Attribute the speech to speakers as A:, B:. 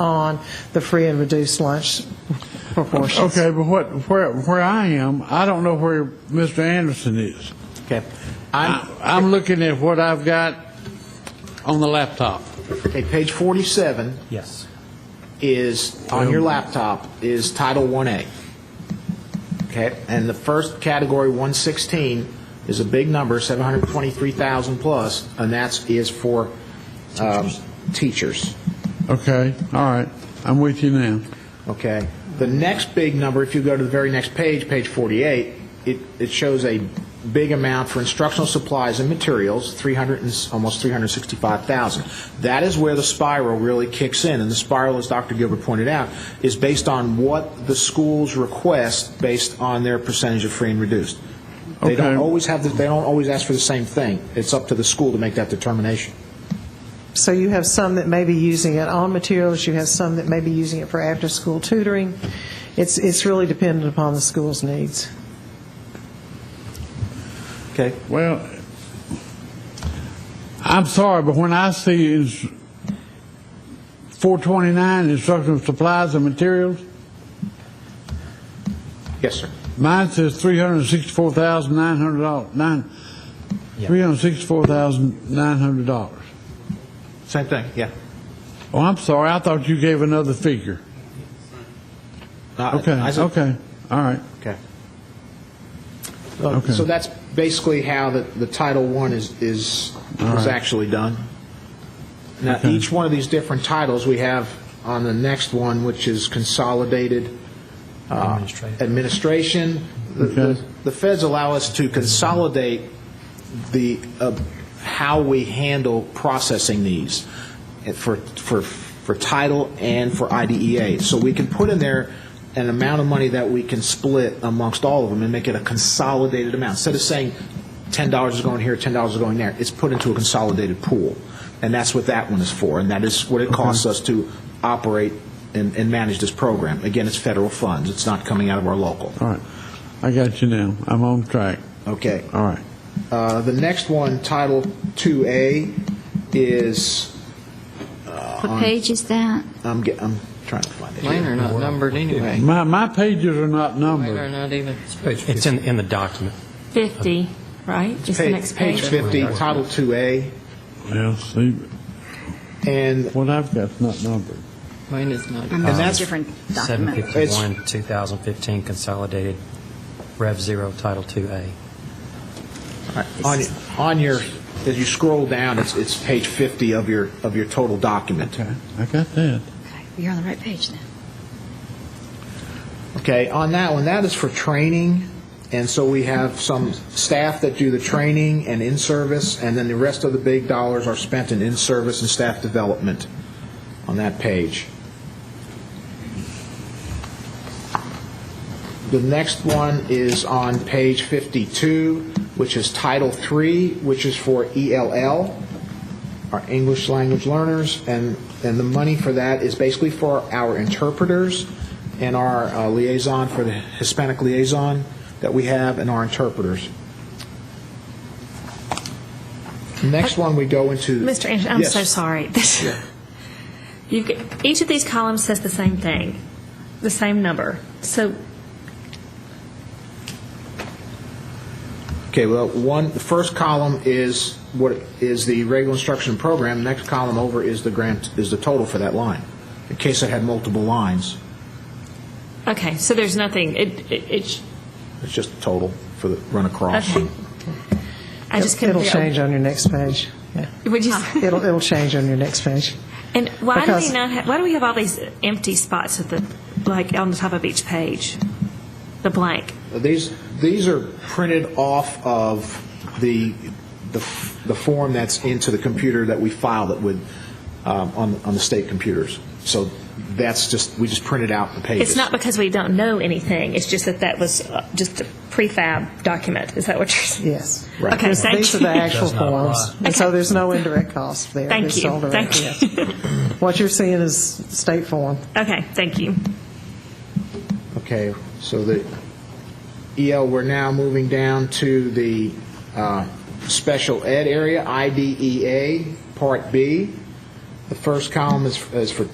A: on the free and reduced lunch proportions.
B: Okay, but what, where, where I am, I don't know where Mr. Anderson is.
C: Okay.
B: I-
C: I'm,
B: I'm looking at what I've got on the laptop.
C: okay, page 47
D: Yes.
C: is, on your laptop, is Title 1A. Okay, and the first category, 116, is a big number, 723,000 plus, and that's, is for um, teachers.
B: Okay, all right, I'm with you now.
C: Okay. The next big number, if you go to the very next page, page 48, it, it shows a big amount for instructional supplies and materials, 300 and, s- almost 365,000. That is where the spiral really kicks in, and the spiral, as Dr. Gilbert pointed out, is based on what the schools request based on their percentage of free and reduced. They don't
B: Okay.
C: always have, the- they don't always ask for the same thing. It's up to the school to make that determination.
A: So you have some that may be using it on materials, you have some that may be using it for after-school tutoring. It's, it's really dependent upon the school's needs.
C: Okay?
B: Well, I'm sorry, but when I see is 429 instructional supplies and materials,
C: Yes, sir.
B: mine says 364,900, dollars. nine,
D: Yeah.
B: $364,900.
C: Same thing, yeah.
B: Oh, I'm sorry, I thought you gave another figure.
C: Uh,
B: Okay,
C: I said-
B: okay, all right.
C: Okay.
B: Okay.
C: So that's basically how the, the Title I is, is, is actually done. Now, each one of these different titles, we have on the next one, which is consolidated uh,
D: Administrative.
C: administration. The- The
B: Okay.
C: the feds allow us to consolidate the, uh, how we handle processing these for, for, for title and for IDEA. So we can put in there an amount of money that we can split amongst all of them and make it a consolidated amount. Instead of saying $10 is going here, $10 is going there, it's put into a consolidated pool. And that's what that one is for, and that is what it costs us to operate and, and manage this program. Again, it's federal funds, it's not coming out of our local.
B: All right, I got you now. I'm on track.
C: Okay.
B: All right.
C: Uh, The next one, Title 2A, is,
E: What page is that?
C: I'm get- I'm trying to find it.
F: Mine are not numbered anyway.
B: My, my pages are not
F: Mine are
B: numbered.
F: not even.
D: It's in, in the document.
E: 50, right? Is the next
C: Page
E: page?
C: 50, Title 2A,
B: Well, see,
C: and
B: what I've got's not numbered.
F: Mine is not.
C: And that's-
G: different document.
D: 751, 2015 consolidated Rev 0 Title 2A.
C: on on your, as you scroll down, it's it's page 50 of your, of your total document.
B: Okay, I got that.
G: Okay, You're on the right page then.
C: Okay, on that one, that is for training, and so we have some staff that do the training and in-service, and then the rest of the big dollars are spent in in-service and staff development on that page. The next one is on page 52, which is Title III, which is for ELL, our English language learners, and, and the money for that is basically for our interpreters and our uh, liaison, for the Hispanic liaison that we have, and our interpreters. Next one, we go into.
E: Mr. Anderson, I'm so
C: Yes.
E: sorry. This- You've, g- each of these columns says the same thing, the same number. So
C: Okay, well, one, the first column is what, is the regular instruction program, next column over is the grant, is the total for that line, in case it had multiple lines.
E: Okay, so there's nothing, it, it, it sh-
C: It's just the total for the run across.
E: okay. I just couldn't.
A: It'll
E: figure out-
A: change on your next page. Yeah.
E: We just,
A: It'll, it'll change on your next page.
E: and why do we
A: Because-
E: not, ha- why do we have all these empty spots at the, like, on the top of each page? The blank?
C: These, these are printed off of the, the f- the form that's into the computer that we filed it with, um, on, on the state computers. So that's just, we just printed out the pages.
E: It's not because we don't know anything, it's just that that was uh, just a prefab document, is that what you're saying?
A: Yes.
C: Right.
E: Okay,
A: Because
E: thank
A: These are the
E: you.
A: actual
D: Does not apply.
A: forms. And so
E: Okay.
A: there's no indirect cost there.
E: Thank
A: It's
E: you.
A: all direct,
E: Thank you.
A: yes. What you're seeing is state form.
E: Okay, thank you.
C: Okay, so the EL, we're now moving down to the uh, special E ed area, IDEA, Part B. The first column is is for